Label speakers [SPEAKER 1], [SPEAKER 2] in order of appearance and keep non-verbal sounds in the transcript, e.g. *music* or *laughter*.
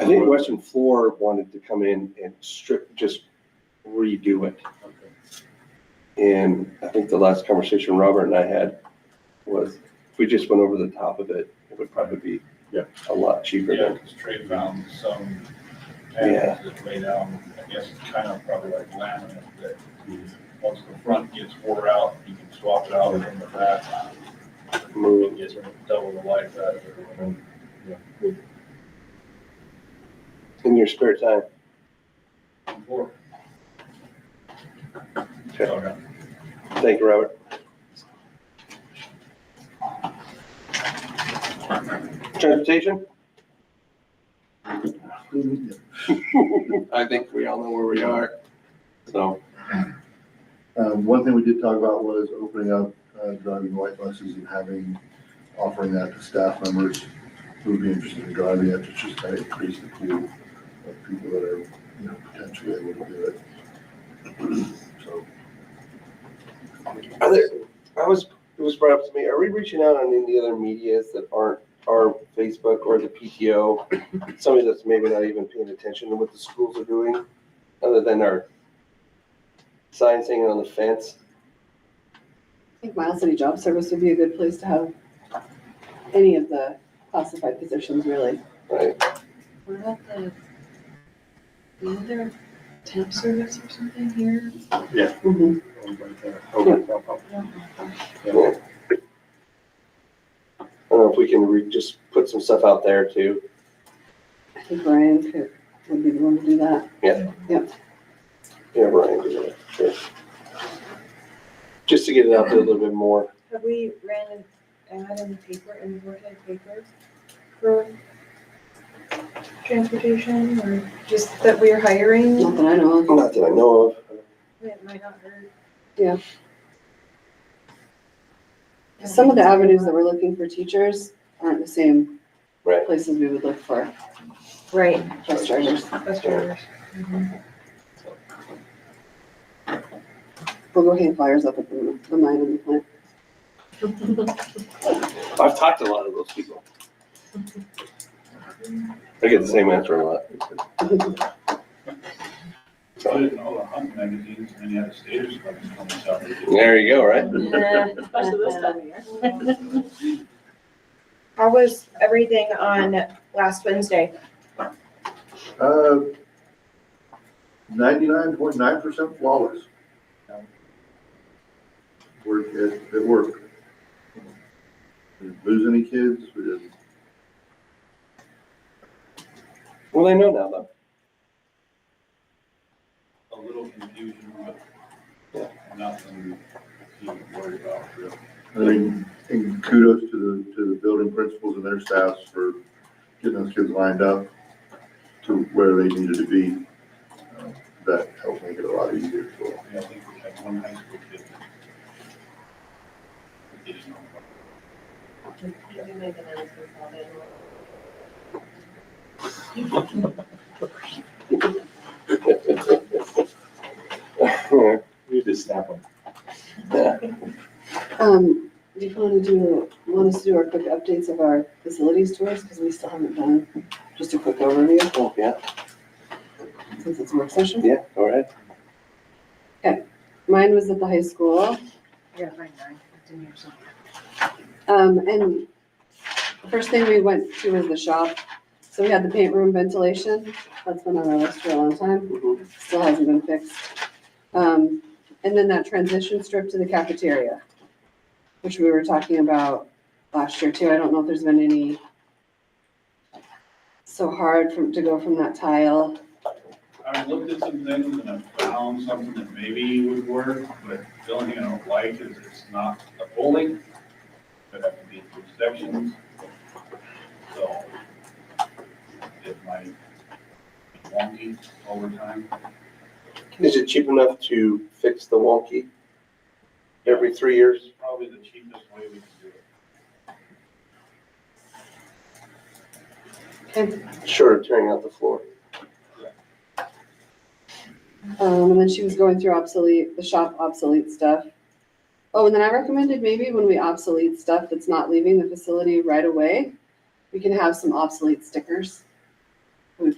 [SPEAKER 1] I think Western Floor wanted to come in and strip, just redo it. And I think the last conversation Robert and I had was if we just went over the top of it, it would probably be
[SPEAKER 2] Yeah.
[SPEAKER 1] a lot cheaper
[SPEAKER 3] Yeah,
[SPEAKER 1] than,
[SPEAKER 3] because trade found some
[SPEAKER 1] Yeah.
[SPEAKER 3] patterns that lay down, I guess, it's kind of probably like laminate that once the front gets wore out, you can swap it out in the back. It gets double the life out of it.
[SPEAKER 1] in your spare time.
[SPEAKER 3] Before.
[SPEAKER 1] Okay.
[SPEAKER 3] Okay.
[SPEAKER 1] Thank you, Robert. Transportation? *laughs*
[SPEAKER 4] Um,
[SPEAKER 1] I think we all know where we are, so.
[SPEAKER 4] Um, one thing we did talk about was opening up, uh, driving white buses and having, offering that to staff members who would be interested in driving it, to just kind of increase the pool of people that are, you know, potentially able to do it. *clears throat* So,
[SPEAKER 1] Are there, I was, it was brought up to me, are we reaching out on any of the other medias that aren't our Facebook or the PTO? Somebody that's maybe not even paying attention to what the schools are doing, other than our signs hanging on the fence?
[SPEAKER 5] I think Miles City Job Service would be a good place to have any of the classified positions, really.
[SPEAKER 1] Right,
[SPEAKER 6] What about the, the other temp service or something here?
[SPEAKER 1] I don't know if we can re, just put some stuff out there too.
[SPEAKER 5] I think Ryan could, would be the one to do that.
[SPEAKER 1] Yeah, Brian, do that, sure. Just to get it out there a little bit more.
[SPEAKER 6] Have we ran an ad in the paper, in the working paper for transportation or just that we're hiring?
[SPEAKER 5] Not that I know of.
[SPEAKER 1] Not that I know of.
[SPEAKER 6] It might not hurt.
[SPEAKER 5] Yeah. Some of the avenues that we're looking for teachers aren't the same
[SPEAKER 1] Right.
[SPEAKER 5] places we would look for
[SPEAKER 6] Right,
[SPEAKER 5] bus drivers.
[SPEAKER 6] bus drivers.
[SPEAKER 5] We'll go hang flyers up at the, the mine and the plant.
[SPEAKER 1] I've talked to a lot of those people. I get the same answer a lot.
[SPEAKER 3] I didn't know the hunt magazines, and the other stages, like, comes out.
[SPEAKER 1] There you go, right?
[SPEAKER 7] Especially this time of year.
[SPEAKER 8] How was everything on last Wednesday?
[SPEAKER 4] uh, ninety-nine point nine percent flawless. Work, it, it worked. We didn't lose any kids, we didn't
[SPEAKER 1] Well, they know now though.
[SPEAKER 3] A little confusion,
[SPEAKER 1] Yeah.
[SPEAKER 3] but nothing to worry about, really.
[SPEAKER 4] I mean, and kudos to the, to the building principals and their staffs for getting those kids lined up to where they needed to be. Uh, That helped make it a lot easier for them.
[SPEAKER 3] Yeah, I think we had one high school kid. that didn't know.
[SPEAKER 1] *laughs*
[SPEAKER 2] You just snap them.
[SPEAKER 5] Um, do you want to do, want us to do our quick updates of our facilities tours? Because we still haven't done just a quick overview
[SPEAKER 1] Oh, yeah,
[SPEAKER 5] since it's a work session.
[SPEAKER 1] yeah, all right.
[SPEAKER 5] Mine was at the high school.
[SPEAKER 6] I gotta find mine, it's in here somewhere.
[SPEAKER 5] Um, and first thing we went to was the shop. So we had the paint room ventilation. That's been on our list for a long time.
[SPEAKER 1] Mhm.
[SPEAKER 5] Still hasn't been fixed. Um, and then that transition strip to the cafeteria, which we were talking about last year too. I don't know if there's been any so hard from, to go from that tile.
[SPEAKER 3] I looked at some things and I found something that maybe would work, but the only thing I don't like is it's not a bowling. It have to be two sections. So it might be wonky over time.
[SPEAKER 1] Is it cheap enough to fix the wonky every three years?
[SPEAKER 3] It's probably the cheapest way we can do it.
[SPEAKER 1] Short of tearing out the floor.
[SPEAKER 5] Um, and then she was going through obsolete, the shop obsolete stuff. Oh, and then I recommended maybe when we obsolete stuff that's not leaving the facility right away, we can have some obsolete stickers.